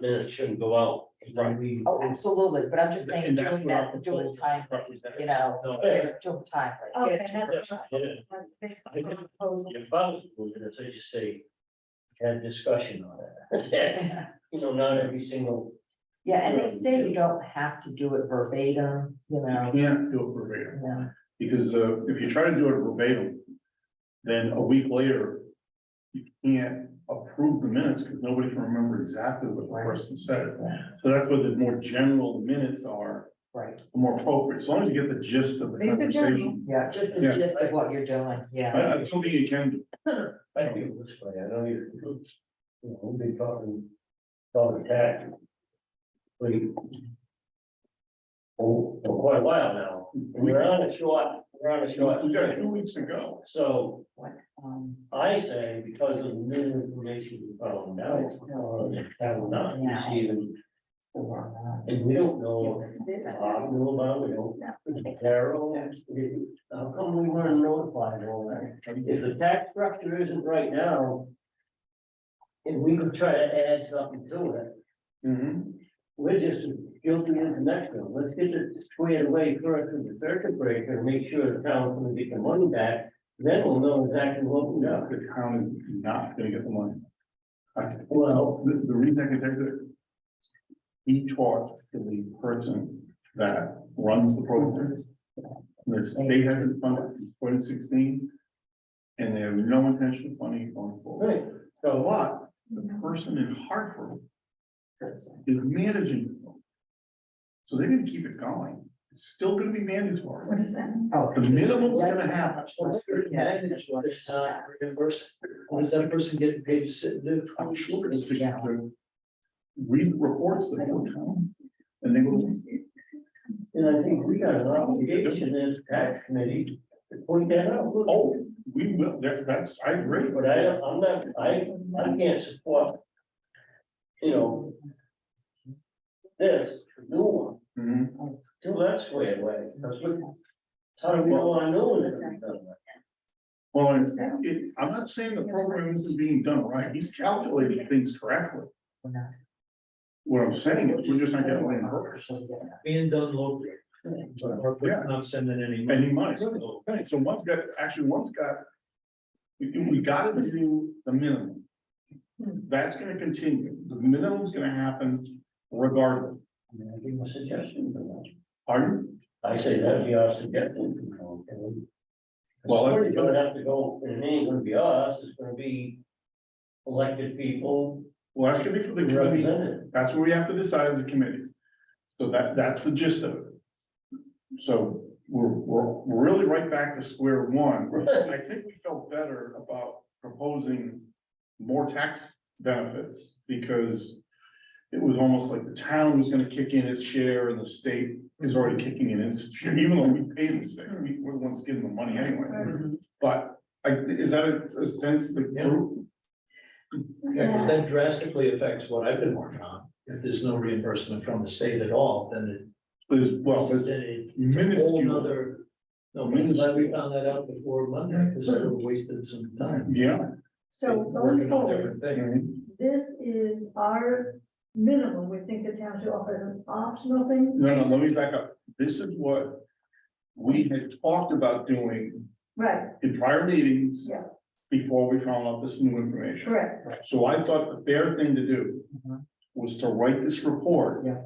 then it shouldn't go out. And then we- Oh, absolutely, but I'm just saying And that's during what our that, during proposal time, represents. you know, No, during during time. right, Okay, get it to that's- her. Yeah, if I was moving this, I'd just say, had discussion on it. You know, not every single, Yeah, and they say you don't have to do it verbatim, you You know, can't do it verbatim, yeah, because uh, if you try to do it verbatim, then a week later, you can't approve the minutes, because nobody can remember exactly what the person said. yeah, So that's where the more general minutes are, right, more appropriate, as long as you get the gist of the These are general. conversation. yeah, just the Yeah. gist of what you're doing, yeah. I, I told you you can, do. I feel this way, I know you're, you know, we'll be talking, talking tax. We. Oh, for quite a while now, we're on a short, we're on a short. we got two weeks to go. So What, um, I say because of new information we found out, uh, that will not receive and, or, uh, and we don't know. if Bob knew about, it, we don't, Carol, we- how come we weren't notified of all that? If the tax structure isn't right now. And we could try to add something to it, Mhm. we're just guilty as the next one, let's get it squared away first with the circuit breaker, and make sure the town's gonna get the money back. Then we'll know exactly what we Yeah, got, the town is not gonna get the money. I- well. The, the reason I can take it. He talked to the person that runs the program. The state hasn't funded since twenty sixteen. And they have no intention of funding going forward. Right, so what? But the person in Hartford is managing. it. So they're gonna keep it going. It's still gonna be mandatory. What is that? Oh. The minimum's gonna happen. Yeah. Reimburse, what does that person get paid to sit and do? Oh, I'm sure it's Yeah. to read the reports that go down. And they go, And I think we got an obligation as tax committee to point that out, oh, we will, that, that's, I agree. but I, don't- I'm not, I, I can't support. You know. This, new one, Mhm. till that's way away, because look, how do we know I know that it's done that? Well, it's- it, I'm not saying the program isn't being done right, he's calculating things correctly. What I'm saying is, we're just not getting it in reverse. Being done locally. Or Yeah. not sending any. and he might. So, Okay, so one's got, actually, one's got. We, we gotta do the minimum. That's gonna continue, the minimum's gonna happen regardless, I mean, I give my suggestion, but pardon? I say that'd be our suggestion. you know, and we- Well, that's- It's gonna have to go, and it ain't gonna be us, it's gonna be elected people Well, that's gonna be for the committee, represented. That's what we have to decide as a committee. So that, that's the gist of it. So we're, we're, we're really right back to square one. I think we felt better about proposing more tax benefits because it was almost like the town was gonna kick in its share and the state is already kicking in its share, even though we pay the state, we, we're the ones giving the money anyway. But I, is that a, a sense the group? Yeah, because that drastically affects what I've been working on. If there's no reimbursement from the state at all, then Is, it. well, it's then it's a Whole minuscule, nother. No, I'm glad we found that out before Monday, because I wasted some time. yeah. Mm-hmm. So going Working on forward, different things. this is our minimum, we think the town should offer as an optional thing, Mm-hmm. No, no, let me back up. This is what we had talked about doing right, in prior meetings. Yeah. Before we found out this new information. correct, So I thought the fair thing to do Mhm. was to write this report. Yeah.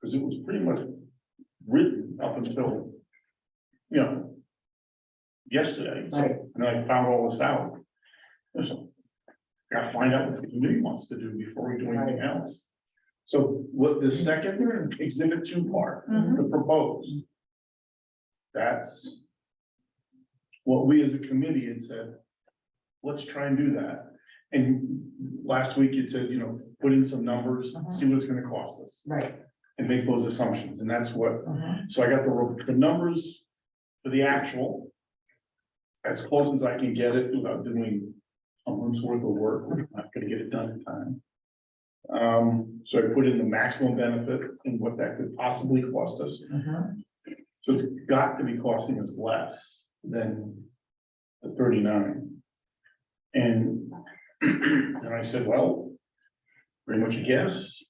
Because it was pretty much written up until, you know, yesterday. So- Right. And I found all this out. So, Gotta find out what the committee wants to do before we do anything else. So what the second exhibit two part Mhm. Mm-hmm. the proposed. That's. What we as a committee had said, let's try and do that. And last week it said, you know, put in some numbers, see what it's gonna cost us Right. and make those assumptions. And that's what, uh-huh. so I got the, re- the numbers for the actual. As close as I can get it without doing a month's worth of work, which I'm not gonna get it done in time. Um, so I put in the maximum benefit and what that could possibly cost us. Uh-huh. So it's got to be costing us less than the thirty-nine. And, and I said, well, pretty much a guess.